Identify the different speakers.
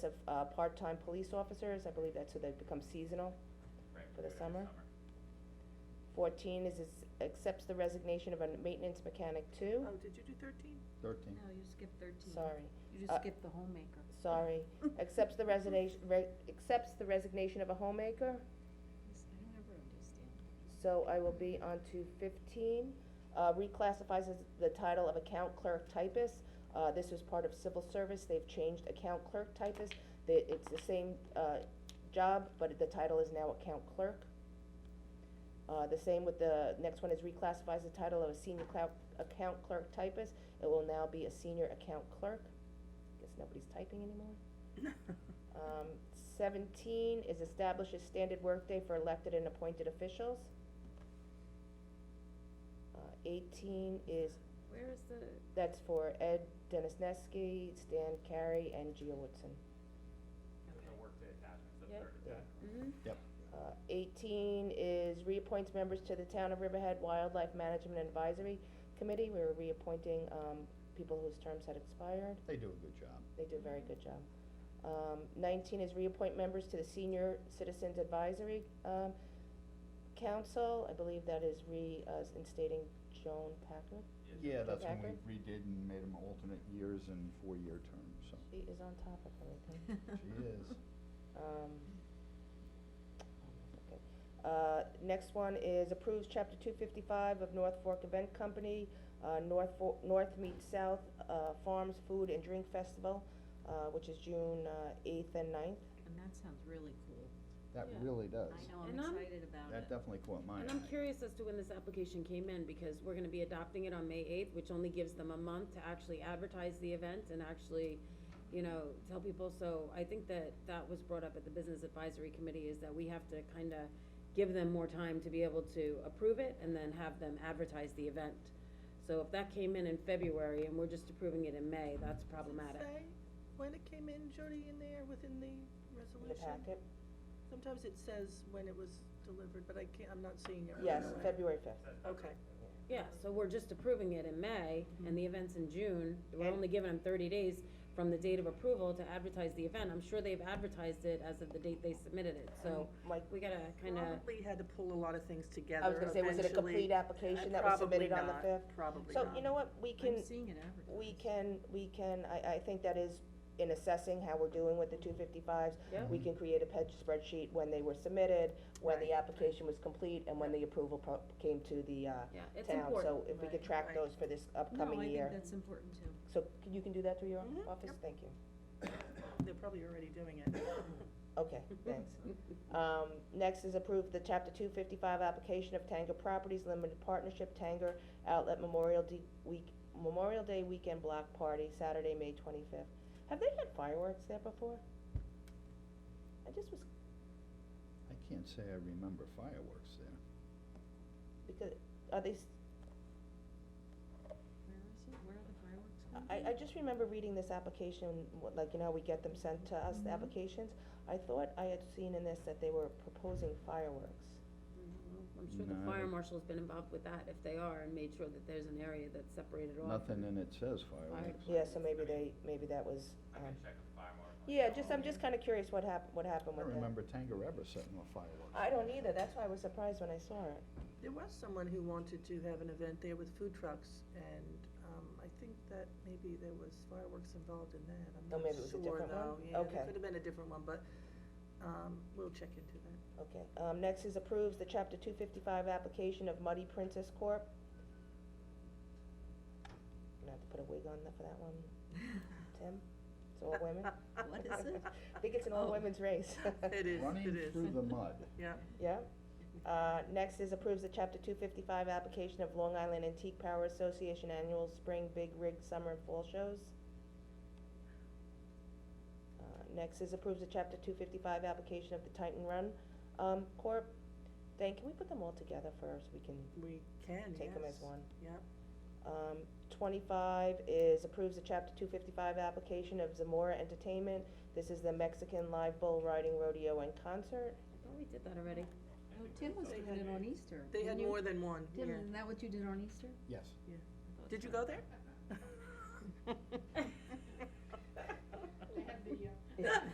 Speaker 1: of uh, part-time police officers, I believe that's who they become seasonal.
Speaker 2: Right,
Speaker 1: For the
Speaker 2: we do it every
Speaker 1: summer? Fourteen is, is accepts the resignation of a maintenance mechanic two,
Speaker 3: Oh, did you do thirteen?
Speaker 4: Thirteen.
Speaker 5: No, you skipped thirteen.
Speaker 1: sorry,
Speaker 5: You
Speaker 1: uh,
Speaker 5: just skipped the homemaker.
Speaker 1: sorry. Accepts the resignation, re- accepts the resignation of a homemaker,
Speaker 5: This- I don't ever understand.
Speaker 1: so I will be on to fifteen. Uh, reclassifies as the title of account clerk typist, uh, this is part of civil service, they've changed account clerk typist. They, it's the same, uh, job, but the title is now account clerk. Uh, the same with the, next one is reclassifies the title of a senior clerk, account clerk typist, it will now be a senior account clerk. Guess nobody's typing anymore. Um, seventeen is establishes standard workday for elected and appointed officials. Uh, eighteen is,
Speaker 5: Where is the,
Speaker 1: that's for Ed Dennis Neske, Stan Carey, and Gia Woodson.
Speaker 2: summer. The workday attachments, the
Speaker 5: Yep.
Speaker 2: third
Speaker 4: Yeah.
Speaker 2: attachment.
Speaker 3: hmm?
Speaker 5: mhm.
Speaker 1: Uh, eighteen is reappoints members to the Town of Riverhead Wildlife Management Advisory Committee. We're reappointing, um, people whose terms had expired.
Speaker 4: They do a good job.
Speaker 1: They do a very good job. Um, nineteen is reappoint members to the Senior Citizens Advisory, um, Council. I believe that is re, uh, instating Joan Packard.
Speaker 4: Yeah, that's when
Speaker 1: Packard?
Speaker 4: we redid and made them alternate years and four-year terms, so
Speaker 1: She is on top of everything.
Speaker 4: she is.
Speaker 1: Um, okay. Uh, next one is approves chapter two fifty-five of North Fork Event Company, uh, North Fork, North meets South, uh, Farms Food and Drink Festival, uh, which is June, uh, eighth and 9th.
Speaker 5: And that sounds really cool.
Speaker 4: That
Speaker 6: Yeah.
Speaker 4: really does.
Speaker 5: I know, I'm
Speaker 6: And I'm-
Speaker 5: excited about
Speaker 4: That
Speaker 5: it.
Speaker 4: definitely caught my eye.
Speaker 6: And I'm curious as to when this application came in, because we're gonna be adopting it on May eighth, which only gives them a month to actually advertise the event and actually, you know, tell people, so I think that that was brought up at the Business Advisory Committee, is that we have to kinda give them more time to be able to approve it and then have them advertise the event. So if that came in in February and we're just approving it in May, that's problematic.
Speaker 3: Does it say when it came in, Jody, in there, within the
Speaker 1: in the
Speaker 3: resolution?
Speaker 1: packet.
Speaker 3: Sometimes it says when it was delivered, but I can't, I'm not seeing it. right
Speaker 1: Yes,
Speaker 3: away.
Speaker 1: February fifth.
Speaker 2: Says that.
Speaker 3: Okay,
Speaker 6: Yeah, so we're just approving it in May, and the event's in June, we're only giving them thirty days from the date of approval to advertise the event, I'm sure they've advertised it as of the date they submitted it, so
Speaker 1: Mike,
Speaker 6: we gotta kinda,
Speaker 3: probably had to pull a lot of things together
Speaker 1: I was gonna say, was it a
Speaker 3: eventually.
Speaker 1: complete application that was submitted on the fifth?
Speaker 3: Probably not, probably
Speaker 1: So,
Speaker 3: not.
Speaker 1: you know what, we can,
Speaker 5: I'm seeing it advertised.
Speaker 1: we can, we can, I, I think that is in assessing how we're doing with the two fifty-fives.
Speaker 6: Yep.
Speaker 1: We can create a ped spreadsheet when they were submitted, when the application was complete, and when the approval pro- came to the, uh,
Speaker 6: yeah, it's
Speaker 1: town.
Speaker 6: important.
Speaker 1: So if we could
Speaker 3: Right,
Speaker 1: track
Speaker 3: right.
Speaker 1: those for this upcoming
Speaker 5: No, I
Speaker 1: year.
Speaker 5: think that's important too.
Speaker 1: So c- you can do that through your
Speaker 3: Mhm,
Speaker 1: office?
Speaker 3: yep.
Speaker 1: Thank you.
Speaker 3: They're probably already doing it.
Speaker 1: Okay, thanks. Um, next is approve the chapter two fifty-five application of Tanger Properties Limited Partnership Tanger Outlet Memorial D Week, Memorial Day Weekend Block Party, Saturday, May twenty-fifth. Have they had fireworks there before? I just was,
Speaker 4: I can't say I remember fireworks there.
Speaker 1: because, are they, s-
Speaker 5: Where is it? Where are the fireworks going?
Speaker 1: I, I just remember reading this application, what- like, you know, we get them sent to us, the
Speaker 5: Mhm.
Speaker 1: applications. I thought I had seen in this that they were proposing fireworks.
Speaker 6: Mm-hmm. I'm sure the
Speaker 4: No.
Speaker 6: fire marshal's been involved with that, if they are, and made sure that there's an area that's separated off.
Speaker 4: Nothing in it says fireworks.
Speaker 1: Yeah, so maybe they, maybe that was,
Speaker 2: I
Speaker 1: um,
Speaker 2: can check with fire marshal.
Speaker 1: yeah, just, I'm just kinda curious what hap- what
Speaker 4: I
Speaker 1: happened with
Speaker 4: don't
Speaker 1: that.
Speaker 4: remember Tangareva setting off fireworks.
Speaker 1: I don't either, that's why I was surprised when I saw it.
Speaker 3: There was someone who wanted to have an event there with food trucks, and, um, I think that maybe there was fireworks involved in that, I'm
Speaker 1: Oh,
Speaker 3: not
Speaker 1: maybe it was a
Speaker 3: sure,
Speaker 1: different one?
Speaker 3: though. Yeah,
Speaker 1: Okay.
Speaker 3: it could have been a different one, but, um, we'll check into that.
Speaker 1: Okay, um, next is approves the chapter two fifty-five application of Muddy Princess Corp. I'm gonna have to put a wig on that for that one, Tim, it's all women,
Speaker 5: What is it?
Speaker 1: I think it's an all
Speaker 5: Oh.
Speaker 1: women's race.
Speaker 3: It is, it
Speaker 4: Running
Speaker 3: is,
Speaker 4: through the mud.
Speaker 3: yeah.
Speaker 1: Yeah, uh, next is approves the chapter two fifty-five application of Long Island Antique Power Association Annual Spring Big Rig Summer and Fall Shows. Uh, next is approves the chapter two fifty-five application of the Titan Run, um, Corp. Dan, can we put them all together first, we can
Speaker 3: We can, Oh, yes.
Speaker 1: take them as one?
Speaker 3: Yep.
Speaker 1: Um, twenty-five is approves the chapter two fifty-five application of Zamora Entertainment, this is the Mexican Live Bull Riding Rodeo and Concert.
Speaker 6: I thought we did that already.
Speaker 5: Oh, Tim was doing it on Easter.
Speaker 3: They had
Speaker 5: didn't you?
Speaker 3: more than one, yeah.
Speaker 5: Tim, isn't that what you did on Easter?
Speaker 4: Yes.
Speaker 3: Did you go there?
Speaker 1: Yeah.